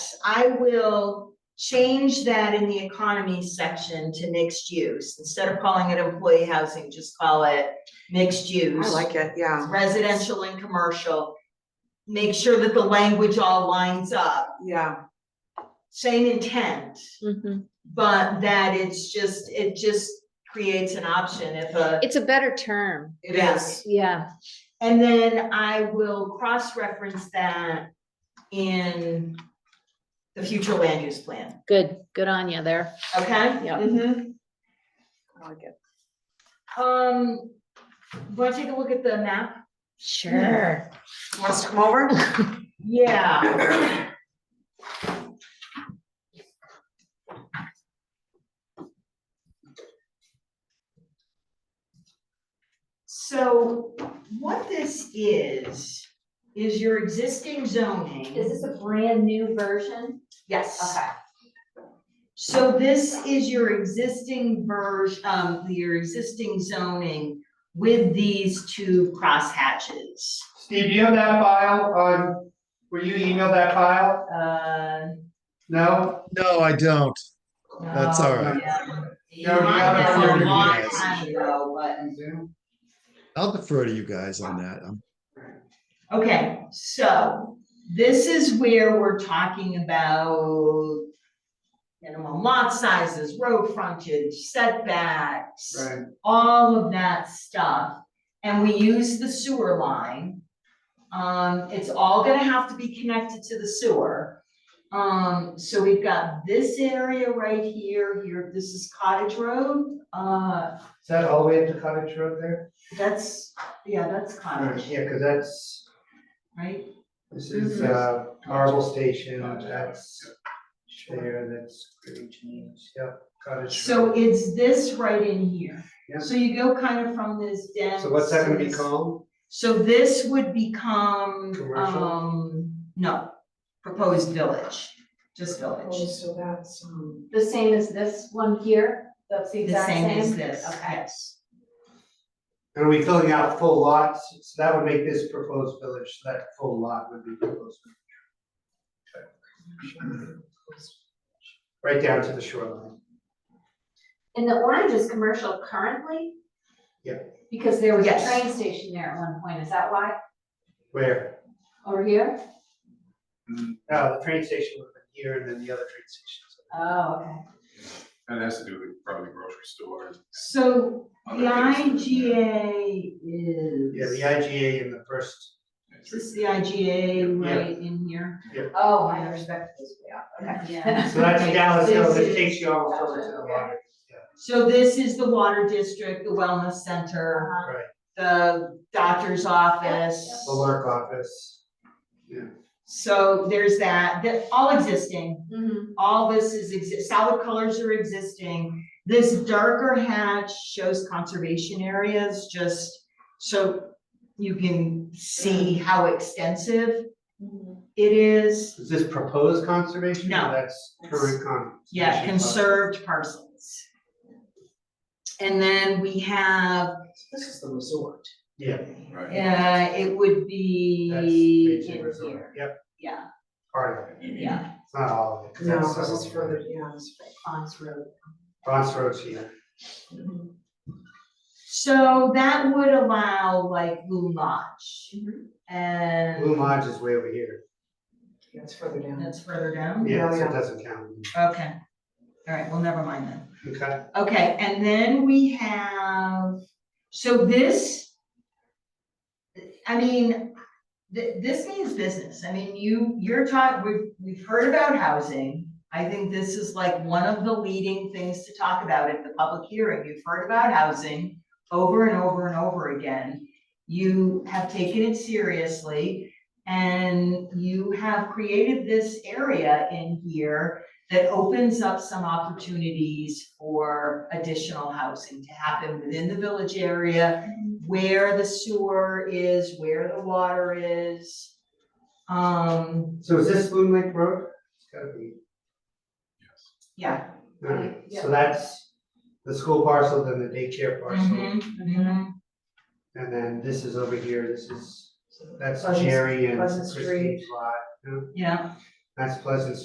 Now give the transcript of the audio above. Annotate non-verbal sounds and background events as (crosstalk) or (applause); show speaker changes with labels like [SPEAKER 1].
[SPEAKER 1] I will change that in the economy section to mixed use. Instead of calling it employee housing, just call it mixed use.
[SPEAKER 2] I like it, yeah,
[SPEAKER 1] Residential and commercial. Make sure that the language all lines up,
[SPEAKER 2] yeah,
[SPEAKER 1] same intent,
[SPEAKER 2] Mm-hmm.
[SPEAKER 1] but that it's just, it just creates an option if a.
[SPEAKER 3] It's a better term.
[SPEAKER 2] it
[SPEAKER 1] Yeah.
[SPEAKER 2] is.
[SPEAKER 3] Yeah.
[SPEAKER 1] And then I will cross-reference that in the future land use plan,
[SPEAKER 3] Good. Good on you there.
[SPEAKER 1] okay?
[SPEAKER 3] Yeah.
[SPEAKER 2] Mm-hmm. I like it.
[SPEAKER 1] Um, wanna take a look at the map?
[SPEAKER 3] Sure.
[SPEAKER 2] Want us to come over?
[SPEAKER 1] (laughs) Yeah. So what this is, is your existing zoning.
[SPEAKER 4] Is this a brand new version?
[SPEAKER 1] Yes.
[SPEAKER 4] Okay.
[SPEAKER 1] So this is your existing version, um, your existing zoning with these two crosshatches.
[SPEAKER 5] Steve, do you have that file on, were you emailed that file?
[SPEAKER 1] Uh.
[SPEAKER 5] No?
[SPEAKER 6] No, I don't. That's all right.
[SPEAKER 1] oh, Yeah. You
[SPEAKER 5] No, you
[SPEAKER 1] might
[SPEAKER 5] gotta
[SPEAKER 1] have
[SPEAKER 5] forward
[SPEAKER 1] a
[SPEAKER 5] it to
[SPEAKER 1] long
[SPEAKER 6] us.
[SPEAKER 1] time ago, but-
[SPEAKER 5] Zoom?
[SPEAKER 6] I'll defer to you guys on that. Um,
[SPEAKER 1] Okay, so this is where we're talking about minimum lot sizes, road frontage, setbacks.
[SPEAKER 5] Right,
[SPEAKER 1] all of that stuff, and we use the sewer line. Um, it's all gonna have to be connected to the sewer. Um, so we've got this area right here, here, this is Cottage Road, uh,
[SPEAKER 5] is that all the way up to Cottage Road there?
[SPEAKER 1] that's, yeah, that's
[SPEAKER 5] Alright,
[SPEAKER 1] Cottage,
[SPEAKER 5] Yeah, cause that's,
[SPEAKER 1] right?
[SPEAKER 5] this is, uh, Marble Station, that's there, that's Great James, yep, Cottage.
[SPEAKER 1] So
[SPEAKER 5] Road.
[SPEAKER 1] it's this right in here.
[SPEAKER 5] Yeah.
[SPEAKER 1] So you go kind of from this dense.
[SPEAKER 5] So what's that gonna be
[SPEAKER 1] this-
[SPEAKER 5] called?
[SPEAKER 1] So this would become,
[SPEAKER 5] Commercial?
[SPEAKER 1] um, no, proposed village, just village.
[SPEAKER 2] Oh, so that's, um,
[SPEAKER 4] The same as this one here? That's the
[SPEAKER 1] The
[SPEAKER 4] exact
[SPEAKER 1] same as
[SPEAKER 4] same?
[SPEAKER 1] this,
[SPEAKER 4] Okay.
[SPEAKER 1] yes.
[SPEAKER 5] And are we filling out full lots? So that would make this proposed village, so that full lot would be proposed. village. Right down to the shoreline.
[SPEAKER 4] And the orange is commercial currently?
[SPEAKER 5] Yeah.
[SPEAKER 4] Because there was a
[SPEAKER 1] Yes.
[SPEAKER 4] train station there at one point, is that why?
[SPEAKER 5] Where?
[SPEAKER 4] Over here?
[SPEAKER 7] Mm,
[SPEAKER 5] No, the train station would have been here and then the other train station.
[SPEAKER 4] Oh, okay.
[SPEAKER 7] That has to do with probably grocery stores.
[SPEAKER 1] So the
[SPEAKER 7] Other things.
[SPEAKER 1] IGA is.
[SPEAKER 5] Yeah, the IGA in the first,
[SPEAKER 1] Is this the IGA right in here?
[SPEAKER 4] Oh, I respect this, yeah, okay.
[SPEAKER 3] Yeah.
[SPEAKER 5] so that's Dallas Hill,
[SPEAKER 1] This
[SPEAKER 5] that
[SPEAKER 1] is-
[SPEAKER 5] takes you almost over to the water,
[SPEAKER 1] So this is the water district, the wellness center,
[SPEAKER 4] (laughs) Uh-huh.
[SPEAKER 5] right,
[SPEAKER 1] the doctor's office.
[SPEAKER 5] the Lark office.
[SPEAKER 1] So there's that, that, all existing,
[SPEAKER 4] Mhm.
[SPEAKER 1] all this is exist, solid colors are existing. This darker hatch shows conservation areas, just so you can see how extensive
[SPEAKER 2] mm-hmm.
[SPEAKER 1] it is.
[SPEAKER 5] Is this proposed conservation? or
[SPEAKER 1] No.
[SPEAKER 5] That's current con.
[SPEAKER 1] Yeah,
[SPEAKER 5] conservation policy?
[SPEAKER 1] conserved parcels. And then we have,
[SPEAKER 2] this is the resort.
[SPEAKER 5] Yeah,
[SPEAKER 7] Right.
[SPEAKER 1] uh, it would be
[SPEAKER 5] that's
[SPEAKER 1] in
[SPEAKER 5] Beijing
[SPEAKER 1] here.
[SPEAKER 5] Resort, yep,
[SPEAKER 1] Yeah,
[SPEAKER 5] part of it,
[SPEAKER 1] yeah.
[SPEAKER 5] it's not all of it. 'cause
[SPEAKER 2] No,
[SPEAKER 5] that's
[SPEAKER 2] because it's
[SPEAKER 5] all-
[SPEAKER 2] further, yeah, it's Ponds Road.
[SPEAKER 5] Bronx Road's here,
[SPEAKER 2] Mm-hmm.
[SPEAKER 1] So that would allow like Blue Lodge
[SPEAKER 2] Mhm.
[SPEAKER 5] Blue
[SPEAKER 1] and
[SPEAKER 5] Lodge is way over here,
[SPEAKER 2] Yeah, it's further down.
[SPEAKER 1] that's further down?
[SPEAKER 5] yeah, so
[SPEAKER 2] yeah.
[SPEAKER 5] it doesn't count,
[SPEAKER 1] Okay. All right, well, never mind then.
[SPEAKER 5] okay?
[SPEAKER 1] Okay, and then we have, so this, I mean, th- this means business. I mean, you, you're talking, we've, we've heard about housing. I think this is like one of the leading things to talk about at the public hearing. You've heard about housing over and over and over again. You have taken it seriously and you have created this area in here that opens up some opportunities for additional housing to happen within the village area, where the sewer is, where the water is. Um,
[SPEAKER 5] So is this Loon Lake Road? It's gotta be.
[SPEAKER 1] yeah.
[SPEAKER 5] Alright,
[SPEAKER 4] Yeah.
[SPEAKER 5] so that's the school parcel, then the
[SPEAKER 2] Mm-hmm.
[SPEAKER 5] daycare parcel,
[SPEAKER 1] Mhm, mhm.
[SPEAKER 5] and then this is over here, this is, that's
[SPEAKER 2] Pleasant-
[SPEAKER 5] Jerry and
[SPEAKER 2] Pleasant Street.
[SPEAKER 5] Christine's lot.
[SPEAKER 1] Yeah.
[SPEAKER 5] That's Pleasant